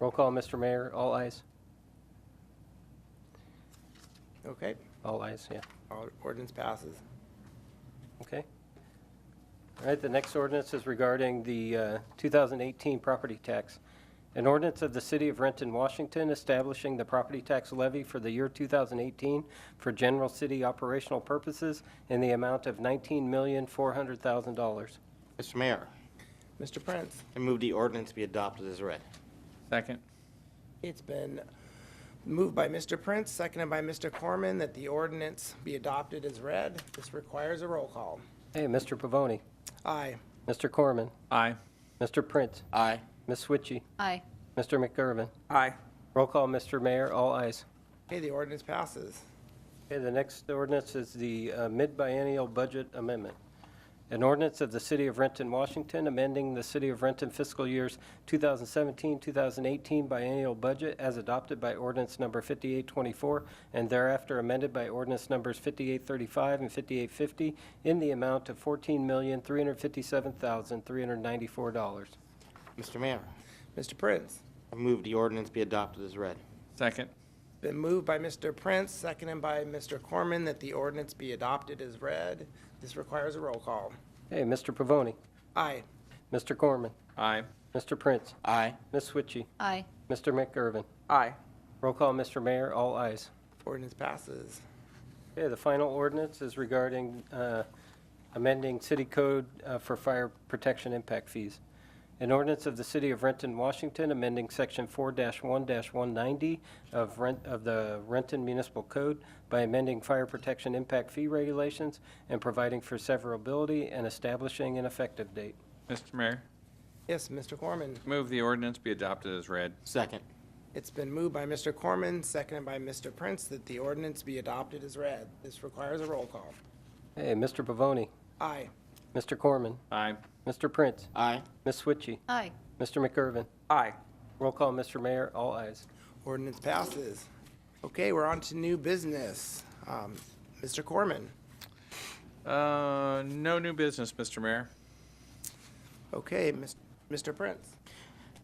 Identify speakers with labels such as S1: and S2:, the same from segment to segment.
S1: Roll call, Mr. Mayor. All ayes.
S2: Okay,
S1: All ayes, yeah.
S2: all ordinance passes.
S1: Okay. All right, the next ordinance is regarding the uh, 2018 property tax. An ordinance of the City of Renton, Washington, establishing the property tax levy for the year 2018 for general city operational purposes in the amount of $19,400,000.
S3: Mr. Mayor,
S2: Mr. Prince,
S3: I move the ordinance be adopted as read.
S4: Second.
S2: it's been moved by Mr. Prince, seconded by Mr. Corman, that the ordinance be adopted as read. This requires a roll call.
S1: Hey, Mr. Pavoni,
S2: Aye.
S1: Mr. Corman,
S4: Aye.
S1: Mr. Prince,
S3: Aye.
S1: Ms. Switchy,
S5: Aye.
S1: Mr. McGurven.
S2: Aye.
S1: Roll call, Mr. Mayor. All ayes.
S2: Okay, the ordinance passes.
S1: Okay, the next ordinance is the uh, mid-biennial budget amendment. An ordinance of the City of Renton, Washington, amending the City of Renton fiscal years 2017, 2018 biennial budget as adopted by ordinance number 5824 and thereafter amended by ordinance numbers 5835 and 5850 in the amount of $14,357,394.
S3: Mr. Mayor,
S2: Mr. Prince,
S3: I move the ordinance be adopted as read.
S4: Second.
S2: been moved by Mr. Prince, seconded by Mr. Corman, that the ordinance be adopted as read. This requires a roll call.
S1: Hey, Mr. Pavoni,
S2: Aye.
S1: Mr. Corman,
S4: Aye.
S1: Mr. Prince,
S3: Aye.
S1: Ms. Switchy,
S5: Aye.
S1: Mr. McGurven.
S2: Aye.
S1: Roll call, Mr. Mayor, all ayes.
S2: Ordinance passes.
S1: Okay, the final ordinance is regarding uh, amending city code uh, for fire protection impact fees. An ordinance of the City of Renton, Washington, amending Section 4-1-190 of Rent, of the Renton Municipal Code by amending fire protection impact fee regulations and providing for severability and establishing an effective date.
S4: Mr. Mayor,
S2: Yes, Mr. Corman.
S4: move the ordinance be adopted as read.
S3: Second.
S2: It's been moved by Mr. Corman, seconded by Mr. Prince, that the ordinance be adopted as read. This requires a roll call.
S1: Hey, Mr. Pavoni,
S2: Aye.
S1: Mr. Corman,
S4: Aye.
S1: Mr. Prince,
S3: Aye.
S1: Ms. Switchy,
S5: Aye.
S1: Mr. McGurven.
S2: Aye.
S1: Roll call, Mr. Mayor, all ayes.
S2: Ordinance passes. Okay, we're on to new business. Um, Mr. Corman.
S4: Uh, no new business, Mr. Mayor.
S2: Okay, Mis- Mr. Prince.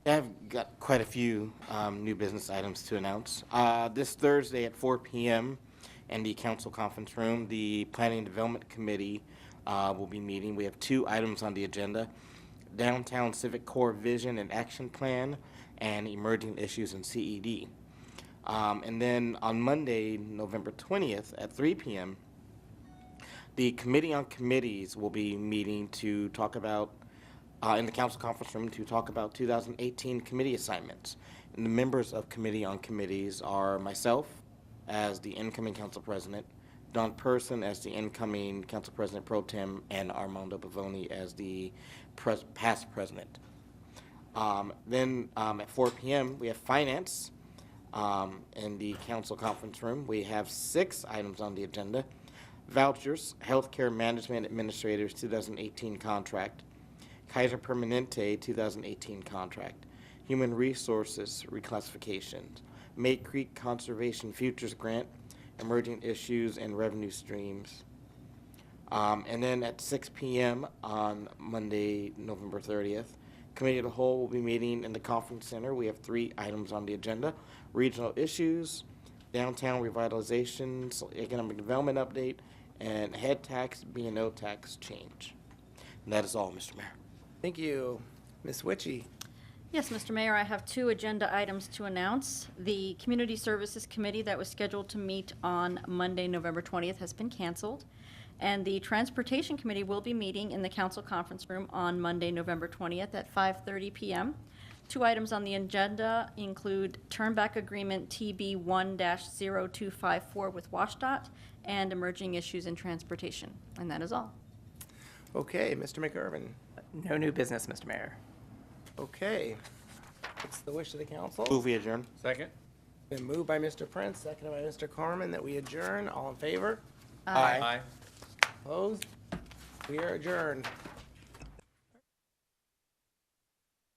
S3: I've got quite a few um, new business items to announce. Uh, This Thursday at 4 PM in the council conference room, the Planning and Development Committee uh, will be meeting. We have two items on the agenda, Downtown Civic Core Vision and Action Plan and Emerging Issues in CED. Um, And then on Monday, November 20th at 3 PM, the Committee on Committees will be meeting to talk about, uh, in the council conference room, to talk about 2018 committee assignments. And the members of Committee on Committees are myself as the incoming council president, Don Person as the incoming council president pro tem, and Armando Bavoni as the pres- past president. Um, Then um, at 4 PM, we have finance um, in the council conference room. We have six items on the agenda. Vouchers, Healthcare Management Administrators 2018 contract, Kaiser Permanente 2018 contract, Human Resources reclassification, May Creek Conservation Futures Grant, Emerging Issues and Revenue Streams. Um, and then at 6 p.m. on Monday, November 30th, Committee of the Whole will be meeting in the Conference Center. We have three items on the agenda regional issues, downtown revitalization, so economic development update, and head tax, B&O tax change. And that is all, Mr. Mayor.
S2: Thank you. Ms. Witchy.
S5: Yes, Mr. Mayor, I have two agenda items to announce. The Community Services Committee that was scheduled to meet on Monday, November 20th, has been canceled. And the Transportation Committee will be meeting in the council conference room on Monday, November 20th at 5:30 PM. Two items on the agenda include Turnback Agreement TB 1-0254 with WashDOT and Emerging Issues in Transportation. And that is all.
S2: Okay, Mr. McGurven.
S6: No new business, Mr. Mayor.
S2: Okay. It's the wish of the council.
S3: Move we adjourn.
S4: Second.
S2: Been moved by Mr. Prince, seconded by Mr. Corman, that we adjourn. All in favor?
S3: Aye.
S4: Aye.
S2: Opposed? We are adjourned.